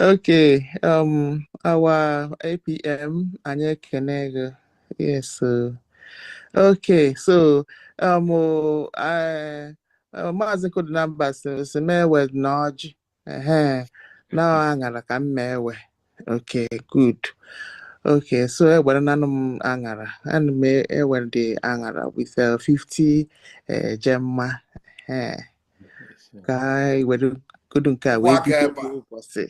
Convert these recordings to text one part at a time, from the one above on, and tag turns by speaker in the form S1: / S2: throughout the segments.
S1: okay um our apm anyị ekene gị yes uh, okay so um uh, uh, maazị kodinamba si si m ewe na ọjị ehe na aṅara ka m ma ewe okay good okay so e ewere nanụ m aṅara ana m ewere dị aṅara with uh, 50 uh, gemma ehe ka anyị were godu nke a wee
S2: Kwaka
S1: bido
S2: ebe a.
S1: ụbọchị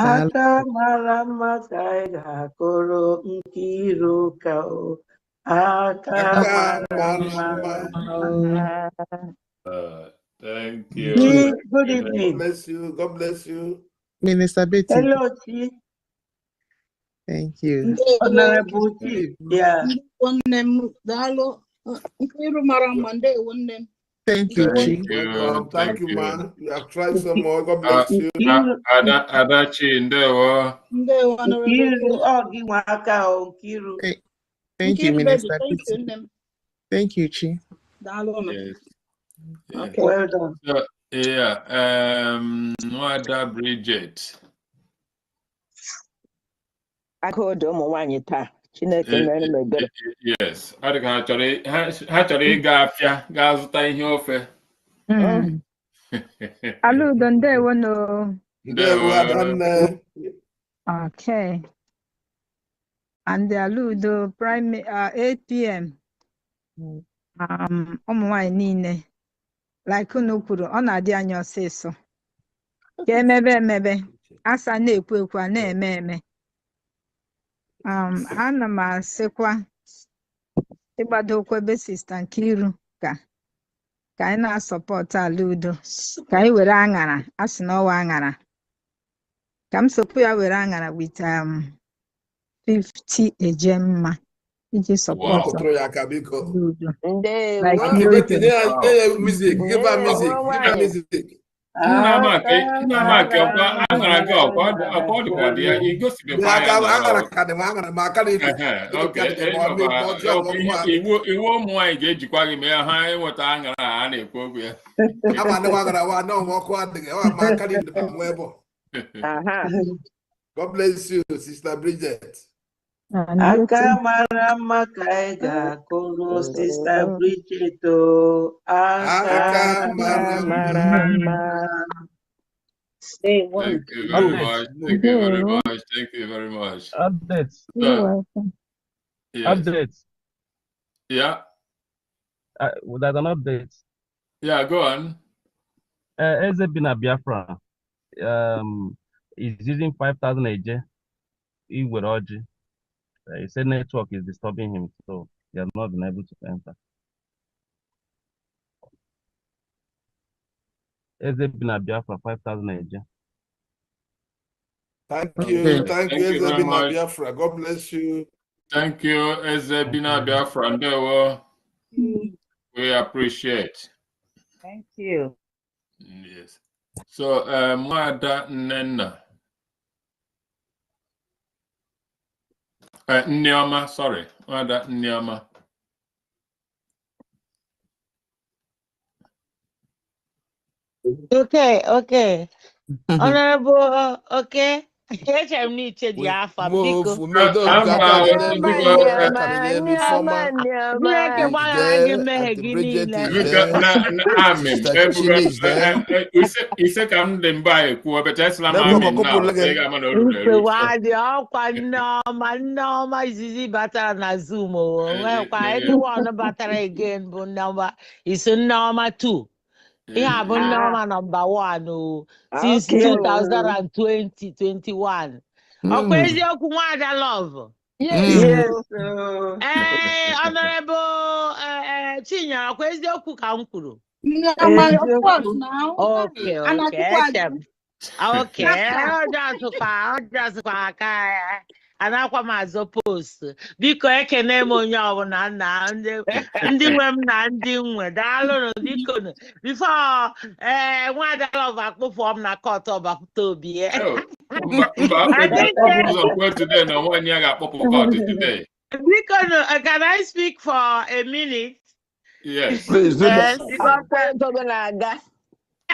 S1: Daalụ.
S3: Aka mara mma ka anyị ga-akụrụ nkiru ụka o. Aka
S2: Aka
S3: mara
S2: mara
S3: mma.
S2: mma.
S4: Uh, thank you.
S3: Good good evening.
S2: Bless you. God bless you.
S1: Minister Betty,
S3: Hello, Chi.
S1: thank you.
S3: Honorable Chi. Yeah.
S5: Ndewo nne m daalụ Nkiru mara mma ndewo nne m
S1: Thank you,
S5: Ndewo
S1: Chi.
S4: Thank you.
S2: Welcome. Thank
S4: Thank
S2: you,
S4: you.
S2: man. You have tried some more. God bless you.
S3: Nkiru
S4: Ada Adachi Ndewo.
S5: ndewo honorable
S3: Nkiru ọ gị nwe aka o Nkiru.
S1: Th- Thank you,
S5: Nkiru baby
S1: Minister
S5: thank you
S1: Betty.
S5: nne m
S1: Thank you, Chi.
S5: daalụ nụ
S4: Yes. Yeah.
S5: okay
S3: Well done.
S4: So, yeah. Um, Nwada Bridget.
S6: aka odo ụmụ nwanyị taa chineke
S4: Eh,
S6: mere m ebere
S4: Yes. Ọ dịka ha chọrọ i- ha ha chọrọ ịga afịa gaa zụta ihe ofe.
S6: Mm.
S7: Mm. Ala udo ndewo no.
S2: There we are,
S4: Ndewo.
S2: done, uh,
S7: Okay. And ala udo prime uh, 8 p.m. Um, ụmụ nwanyị niile like unu kwuru ọ na-adị anyị ọsịsọ ka emebe emebe asa na-ekwu ekwu a na-eme eme um, ana m asịkwa ịgbado ụkwụ ebe sista Nkiru ka ka anyị na-asọpọtụ ala udo ka anyị were aṅara a sị na ọwa aṅara ka m sokwu ya were aṅara with um, 50 ejemma iji
S4: Wow.
S7: sọpọtụ
S2: Kụtụrụ ya aka biko.
S7: ala udo
S6: ndewo
S7: like
S2: Aunty Betty,
S7: Britain.
S2: nye ya nye ya music. Give her
S6: ndewo
S2: music. Give her
S6: nwanyị
S2: music.
S4: Nna Amaka,
S3: Aka
S4: nna Amaka,
S3: mara
S4: ọkwa aṅara gị
S3: mma
S4: ọkwa
S3: na
S4: ọkwa ọ dịkwa dị ya,
S3: nkiru.
S2: Nye
S4: igosipụta ya
S2: aka
S4: na
S2: aṅara ka dị m aṅara ma aka na-efu.
S4: Ehe, e-
S2: Ịnụ
S4: oke,
S2: ka dị ma
S4: ị
S2: ọ
S4: nọkwa,
S2: mee ma ọjọọ ma
S4: ọkwa
S2: ọgwụ
S4: ihe-
S2: a.
S4: e- iwu iwu ụmụ nwanyị ga-ejikwa gị mee ha ịnweta aṅara a a na-ekwu okwu ya.
S2: Ama ndị gbagara wa nọọ ma ọkụ adịghị. Ọ ma aka dị ma nwa ebe. ọ.
S6: aha
S2: God bless you, Sister Bridget.
S7: And
S3: Aka
S7: Britain.
S3: mara mma ka anyị ga-akụrụ sista Bridget o. Aka
S2: Aka
S6: aka
S2: mara mma.
S6: mara mma ndewo
S4: Thank you very
S8: Updates.
S4: much. Thank you very much. Thank you very much.
S8: Updates.
S7: You're
S4: So,
S7: welcome.
S4: yes.
S8: Updates.
S4: Yeah.
S8: Uh, there's an update.
S4: Yeah, go on.
S8: Uh, Eze Bina Biafra um, is using 5,000 AJ. He with Oji. Uh, he said network is disturbing him, so he has not been able to enter. Eze Bina Biafra, 5,000 AJ.
S2: Thank you,
S1: Okay.
S2: thank you,
S4: Thank you very
S2: Ezebina
S4: much.
S2: Biafra. God bless you.
S4: Thank you, Eze Bina Biafra Ndewo. We appreciate.
S6: thank you
S4: Yes. So, uh, Mwada Nnenna, uh, Nneoma, sorry, Mwada Nneoma.
S9: Okay, okay. Honorable, uh, okay. Echere m na iche dị
S2: We
S9: afa
S2: move,
S9: biko.
S2: we move
S4: Uh,
S2: those
S4: I'm
S2: aka
S4: uh,
S2: dị n'elu
S6: Nneọma
S2: ife
S4: biko,
S2: ọma,
S4: uh,
S2: aka
S6: nneọma
S2: dị n'elu ife ọma.
S6: nneọma nneọma
S9: Chineke gbaghara
S2: Is
S9: gị
S2: there,
S9: mmehie
S2: Aunty
S9: gị
S2: Bridget
S9: niile.
S2: is
S4: Luka
S2: there,
S4: na na amin
S2: Sister
S4: ebugo
S2: Chinchini is there.
S4: eh, ise ka m dị mba ekwuo bete esila m
S2: Network
S4: amin na
S2: ọkụpụrụ
S4: so
S2: gị.
S4: ị ga-ama na o ruru eru
S9: Nsogbu
S4: so
S9: adị ọkwa nneọma nneọma izizi batara na Zoom o o nwekwa anyone batara again bụ nneọma iso nneọma 2. Ihe a bụ
S6: ah
S9: nneọma nọmba 1 o uh, since
S6: okay o
S9: 2020 21. Ọkwa
S1: Mm.
S9: eziokwu nwaada love.
S6: yes
S1: Mm.
S6: o
S3: Yes, oh.
S9: Ee, Eh, Honorable eh, eh, Chinyere, ọkwa eziokwu ka m kwuru.
S5: Nneoma of
S3: Eziokwu.
S5: course now
S9: Okay, okay,
S5: anatukwa
S9: eche
S5: gị
S9: m. Okay, eh, ọ dasịkwa, ọ dasịkwa aka ya. Anakwa m azụ post. Biko ekene m onye ọbụla nna ndị ndị nwe m na ndị nwe daalụnụ biko nụ. bifo ee nwaada lọv akpụpụọ m na kọt ọbapụta obi eh. ya.
S4: Oh, mba mba akpụpụ
S9: Adịke
S4: ụzọ kwuo today na nwaanyị ya ga-akpọpụ kọt today
S9: biko nụ, eh, can I speak for a minute?
S4: yes
S2: Please do
S9: Eh,
S2: that.
S9: because
S6: akwụkwọ ego gị na-aga